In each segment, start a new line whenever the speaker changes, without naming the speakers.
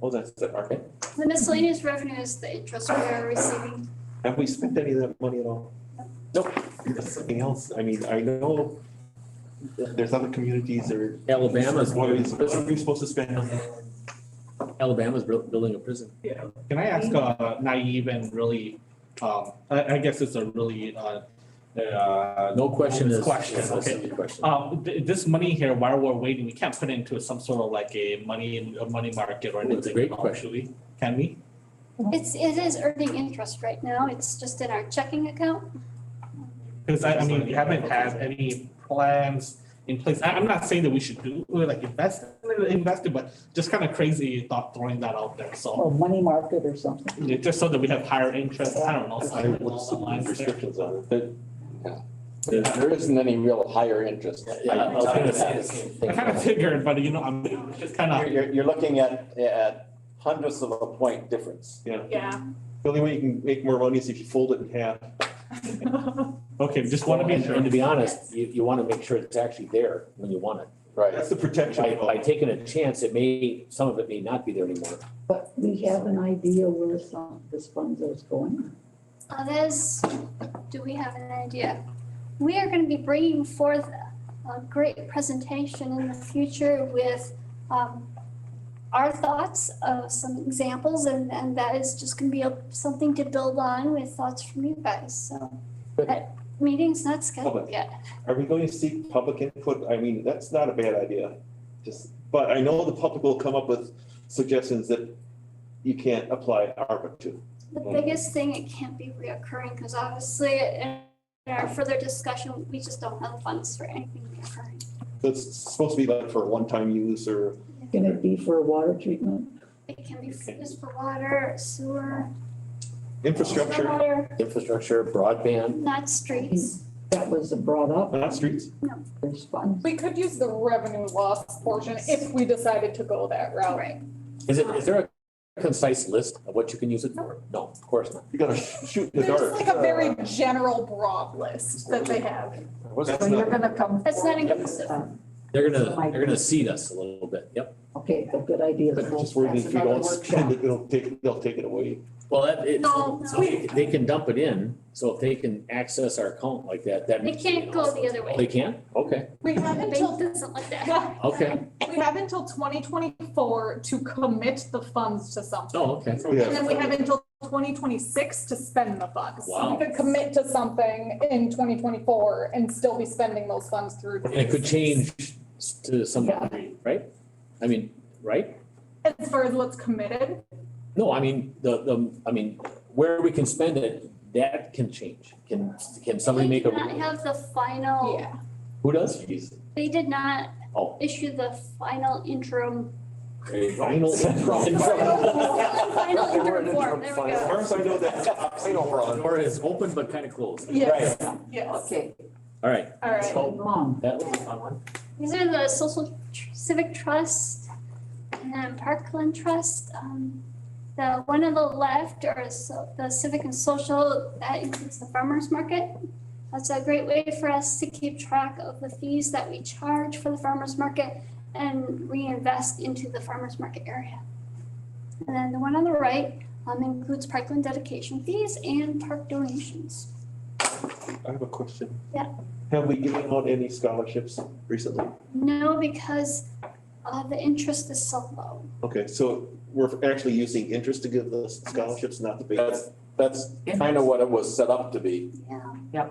Hold on, is that Oh, market?
The miscellaneous revenue is the interest we are receiving.
Have we spent any of that money at all? Nope, that's something else. I mean, I know that there's other communities that are.
Alabama's,
What are we- what are we supposed to spend on?
Alabama's buil- building a prison.
Can I ask a naive and really, um, I, I guess it's a really, uh, uh,
No question is.
Question,
is a
okay.
silly question.
um, th- this money here, while we're waiting, we can't put it into some sort of like a money, a money market or
Ooh,
anything.
that's a great
um,
question.
should we? Can we?
It's, it is earning interest right now. It's just in our checking account.
Because I, I mean, we haven't had any plans in place. I, I'm not saying that we should do, like, invest, invest it, but just kind of crazy thought throwing that out there, so.
or money market or something.
yeah, Just so that we have higher interest, I don't know. something along the lines there.
Restrictions on it, but.
There- There isn't any real higher interest.
Yeah, I was gonna say the same
I kind of figured, but you know, I'm just kind
You're,
of,
you're, you're looking at, at hundredths of a point difference.
Yeah.
The only way you can make more money is if you fold it in half.
okay, just want to be
And-
sure.
And to be honest, you, you want to make sure it's actually there when you want it.
Right.
That's the protection.
By,
of-
by taking a chance, it may, some of it may not be there anymore.
But we have an idea where some, this funds is going.
Others, do we have an idea? We are gonna be bringing forth a great presentation in the future with um, our thoughts of some examples and, and that is just gonna be a- something to build on with thoughts from you guys, so.
Good.
That meeting's not scheduled
Public.
yet.
Are we going to seek public input? I mean, that's not a bad idea. Just, but I know the public will come up with suggestions that you can't apply ARPA to.
The
Mm.
biggest thing, it can't be reoccurring, because obviously in our further discussion, we just don't have funds for anything reoccurring.
That's supposed to be like for a one-time use or,
Can it be for water treatment?
It can be used for water, sewer,
Infrastructure,
stormwater,
Infrastructure, broadband,
not streets.
That was brought up,
not streets.
there's funds.
We could use the revenue loss portion if we decided to go that route.
Right.
is it, is there a concise list of what you can use it for? No, of course not.
You gotta sh- shoot in the
There's
dark.
like a
uh,
very general broad list that they have.
What's
So you're gonna come.
That's not
forward with,
inclusive.
um,
They're gonna, they're gonna seed us a little bit, yep.
Okay, a good idea.
But just worried if we
That's another
don't spend
workshop.
it, they'll take, they'll take it away.
Well, that, it,
No,
so they they can dump it in, so if they can access our account like that, that.
They
means-
can't go the other
They
way.
can? Okay,
We have
The
until,
bank doesn't let that happen.
okay,
we have until twenty twenty-four to commit the funds to something.
oh, okay.
Yeah.
And then we have until twenty twenty-six to spend the funds. So
Wow.
We could commit to something in twenty twenty-four and still be spending those funds through.
And it could change s- to some
Yeah.
degree, right? I mean, right?
As far as what's committed,
No, I mean, the, the, I mean, where we can spend it, that can change. Can, can somebody make
They did not
a,
have the final,
yeah.
who does?
they did not
Oh.
issue the final interim. Final
Final.
interim form, there we
As
go.
far as I know, that's optional for us.
Or is open but kind of closed.
Yes, yes,
Okay,
All right,
all right.
So-
mom,
that was a fun one.
These are the social tr- civic trust and Parkland Trust. Um, The one on the left are so- the civic and social, that includes the farmer's market. That's a great way for us to keep track of the fees that we charge for the farmer's market and reinvest into the farmer's market area. And then the one on the right um, includes Parkland dedication fees and park donations.
I have a question.
Yeah.
Have we given out any scholarships recently?
No, because uh, the interest is so low.
Okay, so we're actually using interest to give the scholarships, not the base,
That's, that's kind of what it was set up to be.
Yeah.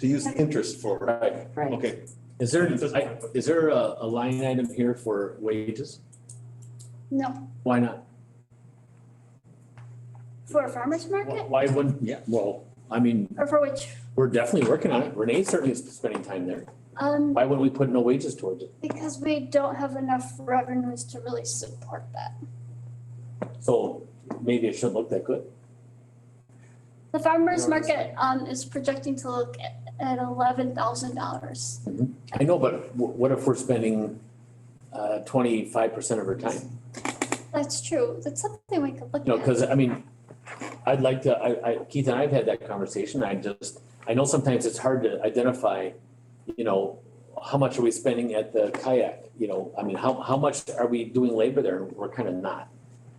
to use interest for,
Right.
right.
okay.
Is there, I- is there a, a line item here for wages?
No,
Why not?
For a farmer's market
Why wouldn't, yeah, well, I mean,
or for which,
we're definitely working on it. Renee certainly is spending time there.
um,
Why wouldn't we put no wages towards it?
because we don't have enough revenues to really support that.
So maybe it shouldn't look that good.
The farmer's market, um, is projecting to look at, at eleven thousand dollars.
I know, but wh- what if we're spending uh twenty-five percent of our time?
That's true. That's something we could look
You know,
at.
because I mean, I'd like to, I I Keith and I've had that conversation. I just, I know sometimes it's hard to identify, you know, how much are we spending at the kayak, you know, I mean, how how much are we doing labor there? We're kind of not.